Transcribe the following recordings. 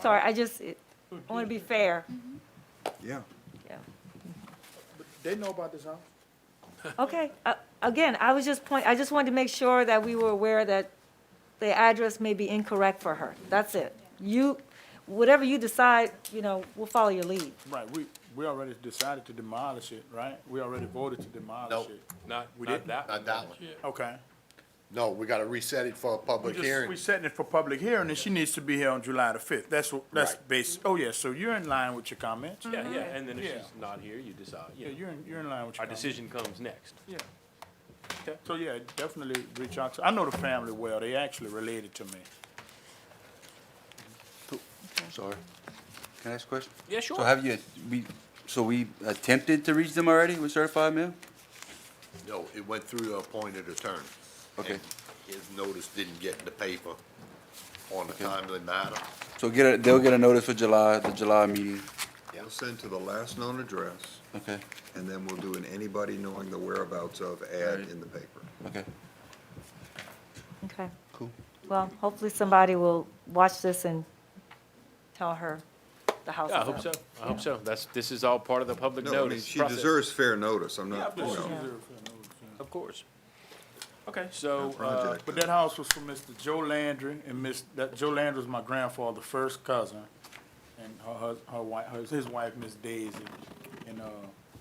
Sorry, I just, it- I want to be fair. Yeah. Yeah. They know about this house. Okay, uh, again, I was just point, I just wanted to make sure that we were aware that the address may be incorrect for her. That's it. You, whatever you decide, you know, we'll follow your lead. Right, we, we already decided to demolish it, right? We already voted to demolish Nope. it. Not, We not didn't? that one. Not that one. Okay. No, we gotta reset it for a We public just- hearing. We setting it for public hearing, and she needs to be here on July the fifth. That's, what- that's Right. basic. Oh, yeah, so you're in line with your comments? Yeah, yeah, and then if Yeah. she's not here, you decide, you Yeah, know. you're in, you're in line with your Our comments. decision comes next. Yeah. Okay, so yeah, definitely reach out to, I know the family well. They actually related to me. Sorry. Can I ask a question? Yeah, So sure. have you, we, so we attempted to reach them already with certified mail? No, it went through the appointed attorney. Okay. And His notice didn't get in the paper on a timely matter. So get a, they'll get a notice for July, the July meeting. We'll send to the last known address, Okay, and then we'll do an anybody knowing the whereabouts of ad Right. in the paper. okay, Okay. cool. Well, hopefully somebody will watch this and tell her the house is Yeah, I up. hope so, I hope so. That's, this is all part of the public No, I mean, notice she process. deserves fair notice, I'm not, you Yeah, she know, deserves that notice, yeah. Of course. Okay, so, uh, project. But that house was for Mr. Joe Landry and Miss, that, Joe Landry was my grandfather, first cousin. And her, her, her wife, her, his wife, Miss Daisy. And, uh,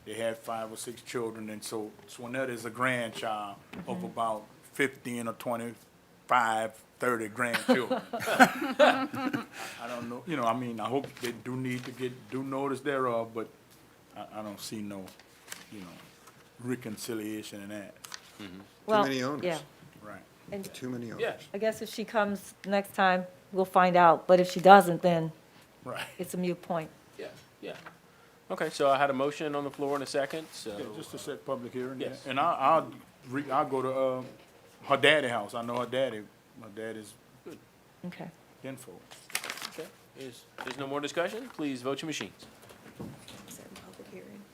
they had five or six children, and so Swanetta is a grandchild of about fifteen or twenty-five, thirty grandchildren. I don't know, you know, I mean, I hope they do need to get due notice thereof, but I, I don't see no, you know, reconciliation in that, Well, many owners. Yeah, right? and too many owners. yeah, I guess if she comes next time, we'll find out, but if she doesn't, then Right. it's a mute point. yeah, yeah. Okay, so I had a motion on the floor in a second, so. Yeah, just to set public hearing, yeah. Yes. And I, I'll, re- I'll go to, uh, her daddy house. I know her daddy, my daddy's Okay. kinfolk. okay, is- There's no more discussion, please vote your machines.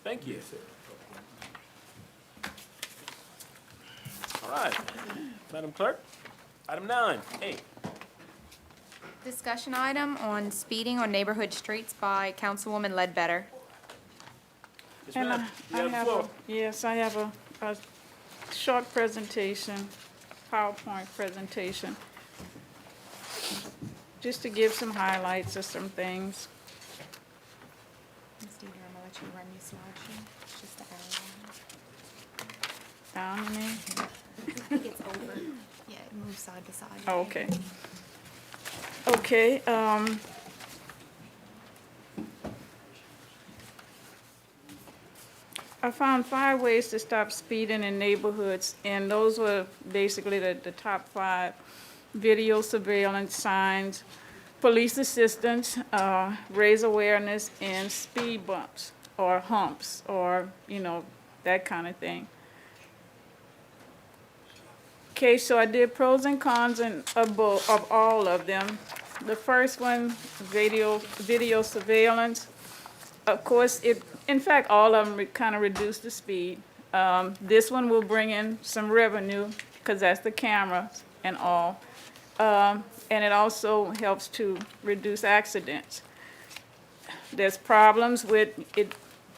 Thank you. All right, Madam Clerk, item nine, A. Discussion item on speeding on neighborhood streets by Councilwoman Ledbetter. Yes, And ma'am. I, You I have the have, floor. a yes, I have a, a short presentation, PowerPoint presentation. Just to give some highlights of some things. Ms. Deidre, I'm gonna let you run your slideshow. It's just an hour Down in there. long. I think it's over. Yeah, it moves side to side. Oh, Okay. Okay, um. I found five ways to stop speeding in neighborhoods, and those were basically the, the top five. Video surveillance signs, police assistance, uh, raise awareness, and speed bumps, or humps, or, you know, that kind of thing. Okay, so I did pros and cons and of bo of all of them. The first one, video, video surveillance. Of course, it, in fact, all of them kind of reduce the speed. Um, this one will bring in some revenue, because that's the cameras and all. Um, and it also helps to reduce accidents. There's problems with it,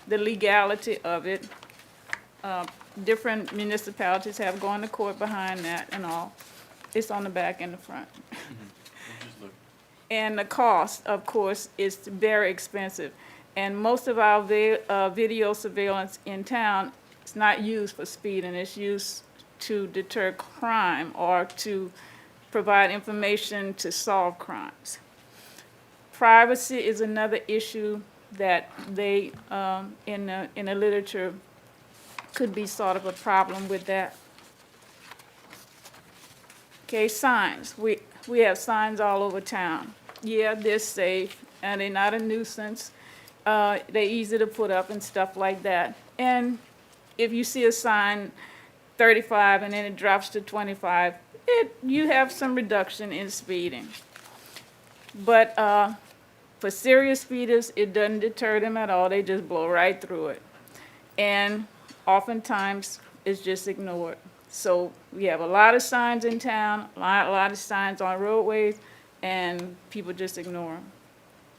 the legality of it different municipalities have gone to court behind that and all. It's on the back and the front. And the cost, of course, is very expensive. And most of our vi- uh, video surveillance in town is not used for speeding. It's used to deter crime or to provide information to solve crimes. Privacy is another issue that they, um, in the, in the literature, could be sort of a problem with that. Okay, signs, we, we have signs all over town. Yeah, they're safe, and they're not a nuisance, uh, they're easy to put up and stuff like that. And if you see a sign thirty-five and then it drops to twenty-five, it, you have some reduction in speeding. But, uh, for serious speeders, it doesn't deter them at all, they just blow right through it and oftentimes it's just ignored. So we have a lot of signs in town, a lot, a lot of signs on roadways, and people just ignore them.